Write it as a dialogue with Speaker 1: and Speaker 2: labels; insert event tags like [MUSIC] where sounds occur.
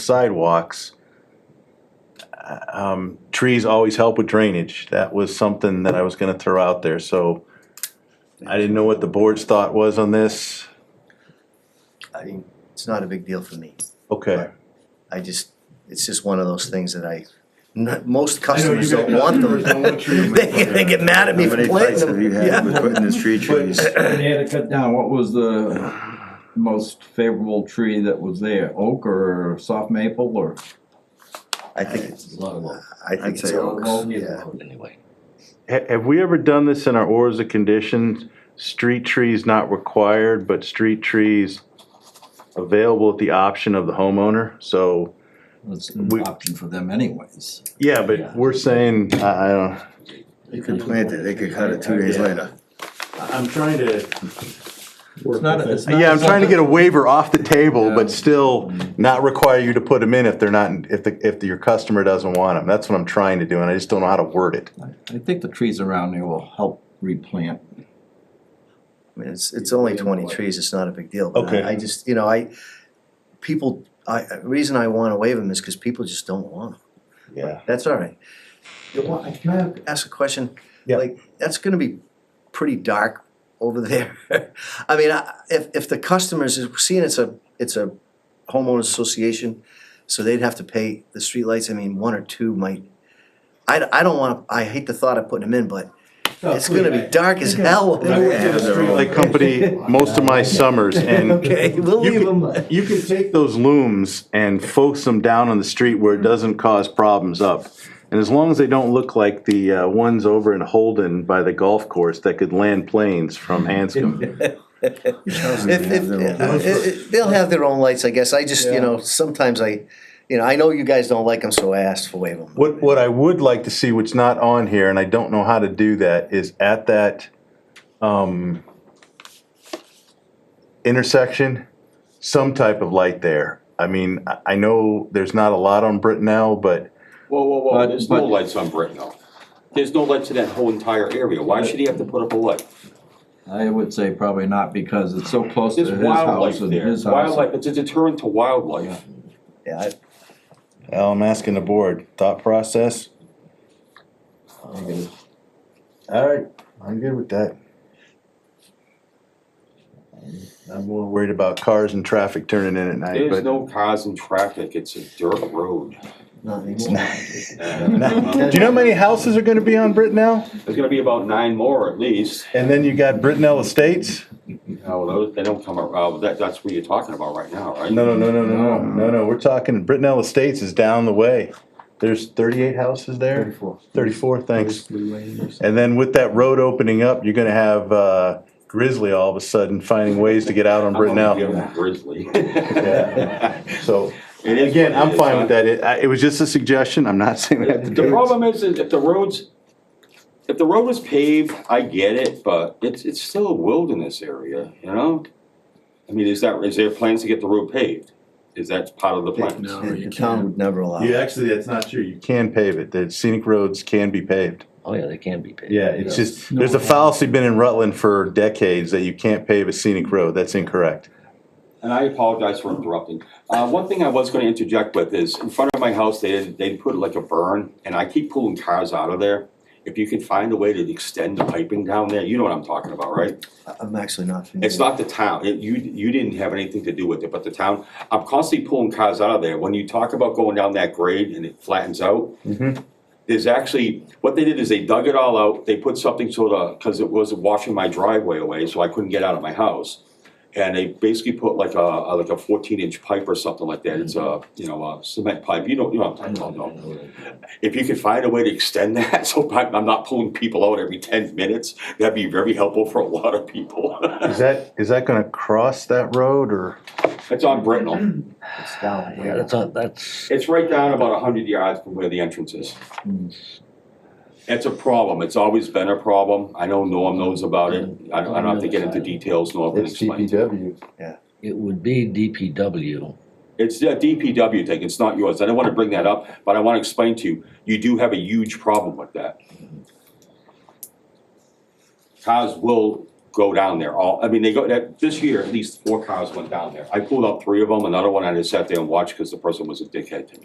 Speaker 1: sidewalks. Um, trees always help with drainage. That was something that I was gonna throw out there, so I didn't know what the board's thought was on this.
Speaker 2: I mean, it's not a big deal for me.
Speaker 1: Okay,
Speaker 2: I just, it's just one of those things that I, n- most
Speaker 3: I know you
Speaker 2: customers
Speaker 3: got
Speaker 2: don't want them.
Speaker 3: customers don't
Speaker 2: [LAUGHS]
Speaker 3: want trees.
Speaker 2: They, they get mad at me for planting them, yeah.
Speaker 4: putting these tree
Speaker 3: trees?
Speaker 4: But
Speaker 3: But-
Speaker 4: they had to cut down, what was the most favorable tree that was there, oak or soft maple or?
Speaker 2: I think,
Speaker 5: It's a lot of oak.
Speaker 2: I think it's oaks, yeah.
Speaker 5: Anyway.
Speaker 1: Ha- have we ever done this in our orders of conditions? Street trees not required, but street trees available at the option of the homeowner, so.
Speaker 4: It's an
Speaker 1: We-
Speaker 4: option for them anyways.
Speaker 1: Yeah, but we're saying, I, I don't.
Speaker 2: You can plant it, they could cut it two days later.
Speaker 1: I'm trying to.
Speaker 4: It's not, a- it's not.
Speaker 1: Yeah, I'm trying to get a waiver off the table,
Speaker 4: Yeah.
Speaker 1: but still not require you to put them in if they're not, if the, if your customer doesn't want them. That's what I'm trying to do, and I just don't know how to word it.
Speaker 4: I think the trees around there will help replant.
Speaker 2: I mean, it's, it's only twenty trees, it's not a big deal, but
Speaker 1: Okay.
Speaker 2: I- I just, you know, I, people, I, the reason I wanna waive them is cause people just don't want them.
Speaker 1: Yeah.
Speaker 2: That's all right. You want- Can I ask a question?
Speaker 1: Yeah.
Speaker 2: Like, that's gonna be pretty dark over there. [LAUGHS] I mean, I- if, if the customers, is- seeing it's a, it's a homeowners association, so they'd have to pay the streetlights, I mean, one or two might, I, I don't wanna, I hate the thought of putting them in, but
Speaker 1: Oh,
Speaker 2: it's gonna be dark as hell over there.
Speaker 1: Like company, most of my summers, and
Speaker 2: [LAUGHS] Okay, we'll
Speaker 1: You
Speaker 2: leave
Speaker 1: can-
Speaker 2: them.
Speaker 1: you can take those looms and focus them down on the street where it doesn't cause problems up. And as long as they don't look like the uh, ones over in Holden by the golf course that could land planes from
Speaker 2: [LAUGHS]
Speaker 1: Hanscom.
Speaker 2: If, if, i- i- they'll have their own lights, I guess, I just, you know, sometimes I, you know, I know you guys don't like them, so I asked for waive them.
Speaker 1: What, what I would like to see, what's not on here, and I don't know how to do that, is at that, um, intersection, some type of light there. I mean, I, I know there's not a lot on Brittenell, but
Speaker 6: Whoa, whoa, whoa,
Speaker 4: But-
Speaker 6: there's no
Speaker 4: but-
Speaker 6: lights on Brittenell. There's no lights in that whole entire area. Why should he have to put up a light?
Speaker 4: I would say probably not because it's so close to
Speaker 6: There's
Speaker 4: his house
Speaker 6: wildlife
Speaker 4: and
Speaker 6: there.
Speaker 4: his house.
Speaker 6: Wildlife, it's a deterrent to wildlife.
Speaker 2: Yeah, I-
Speaker 1: well, I'm asking the board, thought process? All right, I'm good with that. I'm more worried about cars and traffic turning in at night,
Speaker 6: There's
Speaker 1: but.
Speaker 6: no cars and traffic. It's a dirt road.
Speaker 2: no, it's not.
Speaker 1: [LAUGHS] Do you know how many houses are gonna be on Brittenell?
Speaker 6: [LAUGHS] There's gonna be about nine more at least.
Speaker 1: And then you got Brittenell Estates?
Speaker 6: No, those, they don't come around, that, that's what you're talking about right now, right?
Speaker 1: No, no, no, no, no, no, no, no, we're talking, Brittenell Estates is down the way. There's thirty-eight houses there, thirty-four, thanks. And then with that road opening up, you're gonna have, uh, Grizzly all of a sudden finding ways to get out on
Speaker 6: [LAUGHS] I'm gonna give
Speaker 1: Brittenell.
Speaker 6: him a Grizzly.
Speaker 1: Yeah. So,
Speaker 6: [LAUGHS] It is
Speaker 1: again,
Speaker 6: what it
Speaker 1: I'm
Speaker 6: is,
Speaker 1: fine
Speaker 6: huh?
Speaker 1: with that, it, I- it was just a suggestion, I'm not [LAUGHS] saying we have to
Speaker 6: The
Speaker 1: do it.
Speaker 6: problem is, is if the roads, if the road was paved, I get it, but it's, it's still a wilderness area, you know? I mean, is that, is there plans to get the road paved? Is that part of the plan?
Speaker 5: No.
Speaker 2: The town would never allow. it.
Speaker 1: actually, that's not true, you can pave it, the scenic roads can be paved.
Speaker 5: Oh, yeah, they can be paid.
Speaker 1: Yeah, it's just, there's a fallacy been in Rutland for decades that you can't pave a scenic road, that's incorrect.
Speaker 6: And I apologize for interrupting. Uh, one thing I was gonna interject with is, in front of my house, they, they put like a burn, and I keep pulling cars out of there. If you can find a way to extend the piping down there, you know what I'm talking about, right?
Speaker 2: I- I'm actually not familiar.
Speaker 6: It's not the town, It- you, you didn't have anything to do with it, but the town, I'm constantly pulling cars out of there, when you talk about going down that grade and it flattens out. There's actually, what they did is they dug it all out, they put something sort of, cause it was washing my driveway away, so I couldn't get out of my house. And they basically put like a, a- like a fourteen inch pipe or something like that, it's a, you know, a cement pipe, you don't, you know, I don't know if you could find a way to extend that, [LAUGHS] so I'm I'm not pulling people out every ten minutes, that'd be very helpful for a lot of people. [LAUGHS]
Speaker 1: Is that, is that gonna cross that road, or?
Speaker 6: It's on Brittenell.
Speaker 2: It's down
Speaker 5: Yeah,
Speaker 2: where-
Speaker 5: that's, not- that's,
Speaker 6: It's right down about hundred yards from where the entrance is.
Speaker 2: Hmm.
Speaker 6: It's a problem. It's always been a problem. I know Norm knows about it. I don't, I don't have to get into details, Norm can explain.
Speaker 5: it would be DPW.
Speaker 6: It's a DPW thing. It's not yours. I don't wanna bring that up, but I wanna explain to you, you do have a huge problem with that. Cars will go down there. All, I mean, they go, that, this year, at least four cars went down there. I pulled out three of them, another one I just sat there and watched because the person was a dickhead to me.